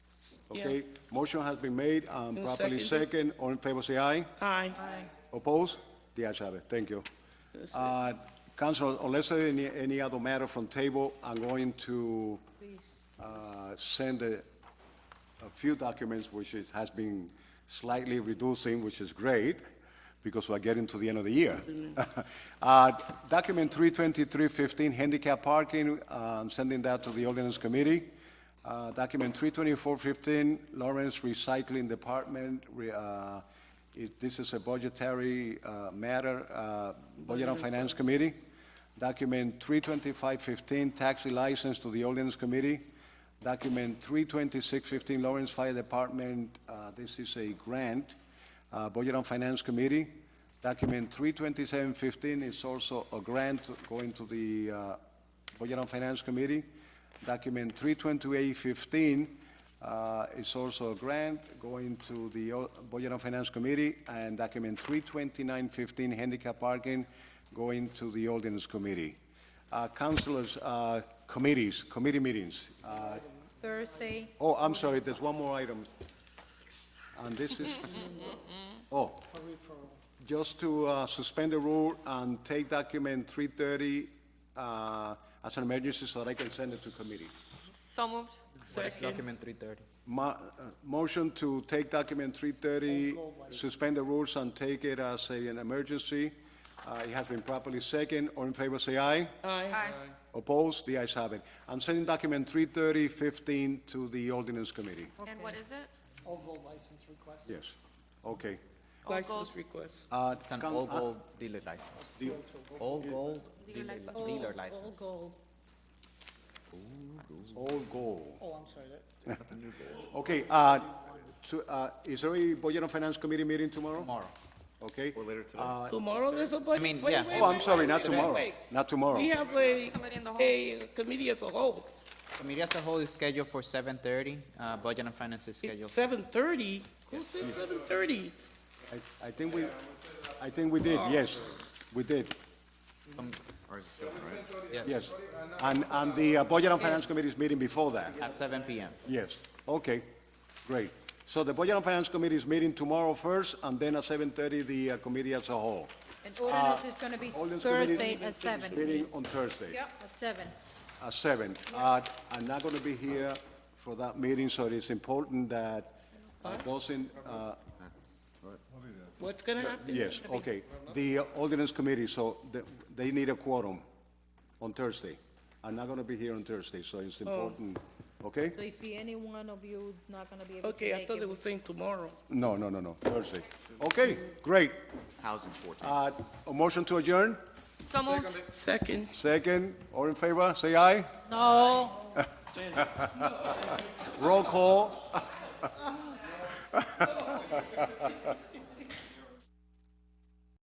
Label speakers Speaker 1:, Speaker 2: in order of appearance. Speaker 1: Okay, motion has been made and
Speaker 2: And
Speaker 1: properly second.
Speaker 2: seconded.
Speaker 1: All in favor, say aye.
Speaker 2: Aye.
Speaker 1: Opposed? The ayes have it. Thank you. Uh, Council, unless there any, any other matter from table, I'm going to uh, send a, a few documents, which is, has been slightly reducing, which is great, because we're getting to the end of the year. Uh, Document 32315, handicap parking, uh, I'm sending that to the ordinance committee. Uh, Document 32415, Lawrence Recycling Department, re- uh, it- this is a budgetary uh, matter, uh, Budget and Finance Committee. Document 32515, taxi license to the ordinance committee. Document 32615, Lawrence Fire Department, uh, this is a grant, uh, Budget and Finance Committee. Document 32715 is also a grant going to the uh, Budget and Finance Committee. Document 32815 uh, is also a grant going to the O- Budget and Finance Committee. And document 32915, handicap parking, going to the Ordinance Committee. Uh, Councilors, uh, committees, committee meetings. Uh,
Speaker 3: Thursday,
Speaker 1: Oh, I'm sorry, there's one more item. And this is, oh, just to uh, suspend the rule and take document 330 uh, as an emergency so that I can send it to committee.
Speaker 4: So moved.
Speaker 5: What is
Speaker 2: Second.
Speaker 5: document three thirty?
Speaker 1: Mo- uh, Motion to take document 330, suspend the rules and take it as a- an emergency. Uh, It has been properly second. All in favor, say aye.
Speaker 2: Aye.
Speaker 1: Opposed? The ayes have it. I'm sending document 33015 to the ordinance committee.
Speaker 4: And what is it?
Speaker 6: Oval license request.
Speaker 1: Yes. Okay.
Speaker 2: License request.
Speaker 1: Uh,
Speaker 5: It's an
Speaker 1: Coun-
Speaker 5: all
Speaker 1: uh,
Speaker 5: gold dealer license. All gold dealer license. Dealer license.
Speaker 3: gold.
Speaker 1: All goal.
Speaker 6: Oh, I'm sorry, that,
Speaker 1: Okay, uh, to, uh, is there a Budget and Finance Committee meeting tomorrow?
Speaker 5: Tomorrow.
Speaker 1: Okay? Or later today.
Speaker 2: Tomorrow there's a budget.
Speaker 5: I mean,
Speaker 2: Wait,
Speaker 5: yeah.
Speaker 2: wait,
Speaker 1: Oh, I'm
Speaker 2: wait,
Speaker 1: sorry,
Speaker 2: wait,
Speaker 1: not
Speaker 2: wait,
Speaker 1: tomorrow. Oh.
Speaker 2: wait.
Speaker 1: Not tomorrow.
Speaker 2: We have a,
Speaker 4: Committee in the whole.
Speaker 2: a committee as a whole.
Speaker 5: Committee as a whole is scheduled for seven thirty. Uh, budget and finance is scheduled.
Speaker 2: Seven thirty? Who said seven thirty?
Speaker 1: I, I think we, I think we did, yes, we did, yes. And, and the uh, Budget and Finance Committee is meeting before that,
Speaker 5: At seven PM.
Speaker 1: yes, okay, great. So the Budget and Finance Committee is meeting tomorrow first, and then at seven-thirty, the uh, committee as a whole.
Speaker 3: And ordinance is gonna be
Speaker 1: Ordinance Uh, Committee
Speaker 3: Thursday at seven,
Speaker 1: Meeting on Thursday.
Speaker 3: at seven.
Speaker 1: at seven. Uh, I'm not gonna be here for that meeting, so it is important that uh, those in, uh,
Speaker 2: What's gonna happen?
Speaker 1: yes, okay. The ordinance committee, so the- they need a quorum on Thursday. I'm not gonna be here on Thursday, so it's important, okay?
Speaker 3: So if any one of you is not gonna be able to
Speaker 2: Okay, I
Speaker 3: make
Speaker 2: thought they
Speaker 3: it,
Speaker 2: were saying tomorrow.
Speaker 1: No, no, no, no, Thursday. Okay, great. Housing fourteen. A motion to adjourn?
Speaker 4: So moved.
Speaker 2: Second.
Speaker 1: Second, all in favor, say aye.
Speaker 3: no.
Speaker 1: Roll call.